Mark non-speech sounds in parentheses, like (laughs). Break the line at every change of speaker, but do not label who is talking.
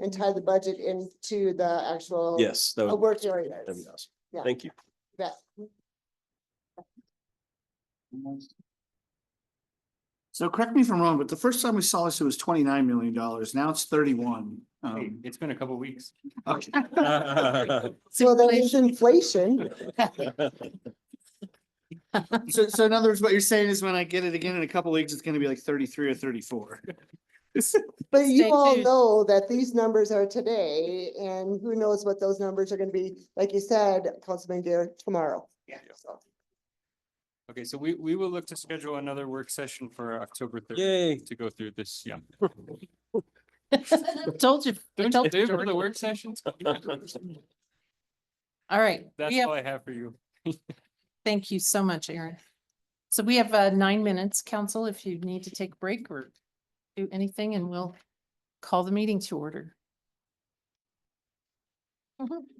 and tie the budget into the actual.
Yes, that
uh,
would,
Work area.
that'd be awesome.
Yeah.
Thank you.
Yeah.
So correct me if I'm wrong, but the first time we saw this, it was twenty-nine million dollars. Now it's thirty-one.
Hey,
Um,
It's been a couple weeks.
okay.
So there is inflation.
(laughs) So, so in other words, what you're saying is when I get it again in a couple weeks, it's gonna be like thirty-three or thirty-four.
But
Stay
you all
tuned.
know that these numbers are today and who knows what those numbers are gonna be, like you said, Councilman Gear, tomorrow. Yeah.
Okay, so we, we will look to schedule another work session for October
(laughs)
third
Yay.
to go through this, yeah.
(laughs) Told you.
Don't
I
you
told
do
you.
for the work sessions?
All right.
That's
We have,
all I have for you.
thank you so much, Aaron. So we have uh, nine minutes, council, if you need to take a break or do anything, and we'll call the meeting to order. Mhm.